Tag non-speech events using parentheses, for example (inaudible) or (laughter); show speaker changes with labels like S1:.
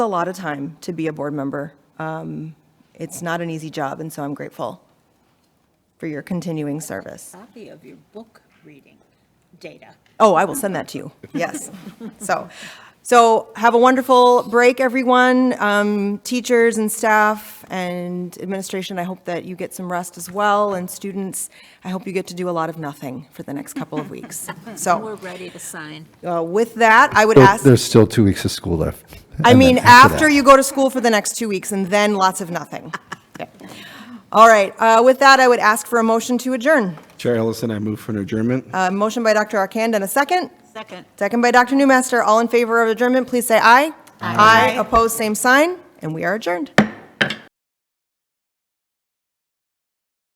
S1: a lot of time to be a board member. Um, It's not an easy job, and so I'm grateful for your continuing service.
S2: copy of your book reading data.
S1: Oh, I will send that to you. Yes. So, so have a wonderful break, everyone. Um, Teachers and staff and administration, I hope that you get some rest as well. And students, I hope you get to do a lot of nothing for the next couple of weeks.
S2: We're
S1: So
S2: ready to sign.
S1: uh, with that, I would
S3: Still-
S1: ask,
S3: There's still two weeks of school left.
S1: I
S3: And then
S1: mean, after
S3: that.
S1: you go to school for the next two weeks and then lots of nothing. (laughs) All right, uh, with that, I would ask for a motion to adjourn.
S4: Chair Ellison, I move for an adjournment.
S1: A motion by Dr. Arcand and a second.
S2: Second.
S1: Second by Dr. Newmaster. All in favor of adjournment, please say aye. Aye. Opposed, same sign, and we are adjourned.